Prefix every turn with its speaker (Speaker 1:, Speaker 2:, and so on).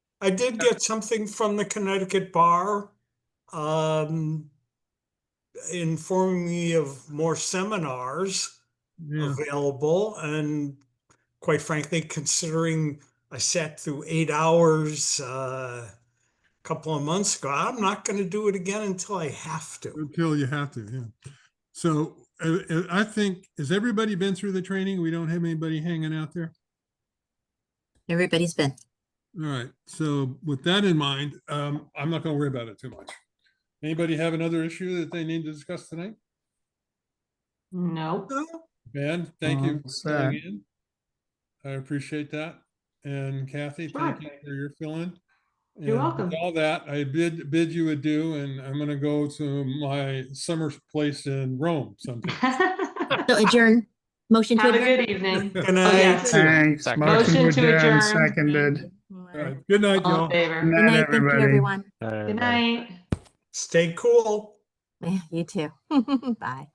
Speaker 1: I did get something from the Connecticut Bar um, informing me of more seminars
Speaker 2: Yeah,
Speaker 1: available and quite frankly, considering I sat through eight hours uh, a couple of months ago, I'm not going to do it again until I have to.
Speaker 2: until you have to, yeah. So uh, uh, I think, has everybody been through the training? We don't have anybody hanging out there?
Speaker 3: Everybody's been.
Speaker 2: All right, so with that in mind, um, I'm not gonna worry about it too much. Anybody have another issue that they need to discuss tonight?
Speaker 4: No,
Speaker 2: Ben, thank you
Speaker 5: Um,
Speaker 2: for filling in. I appreciate that. And Kathy, thank you
Speaker 4: Sure.
Speaker 2: for your fill-in.
Speaker 4: You're
Speaker 2: And with
Speaker 4: welcome.
Speaker 2: All that, I bid, bid you adieu, and I'm gonna go to my summer place in Rome sometime.
Speaker 4: Have
Speaker 3: So adjourn, motion to
Speaker 4: a
Speaker 3: adjourn.
Speaker 4: good evening.
Speaker 1: Can
Speaker 4: Oh,
Speaker 1: I?
Speaker 4: yes.
Speaker 5: Thanks.
Speaker 6: Second.
Speaker 4: Motion
Speaker 5: Motion
Speaker 4: to
Speaker 5: to adjourn,
Speaker 4: adjourn.
Speaker 5: seconded.
Speaker 2: All right, Good night,
Speaker 4: All in
Speaker 2: y'all.
Speaker 4: favor.
Speaker 3: Good
Speaker 5: Night,
Speaker 3: night, thank you,
Speaker 5: everybody.
Speaker 3: everyone.
Speaker 4: Good night.
Speaker 1: Stay cool.
Speaker 3: Yeah, you too. Bye.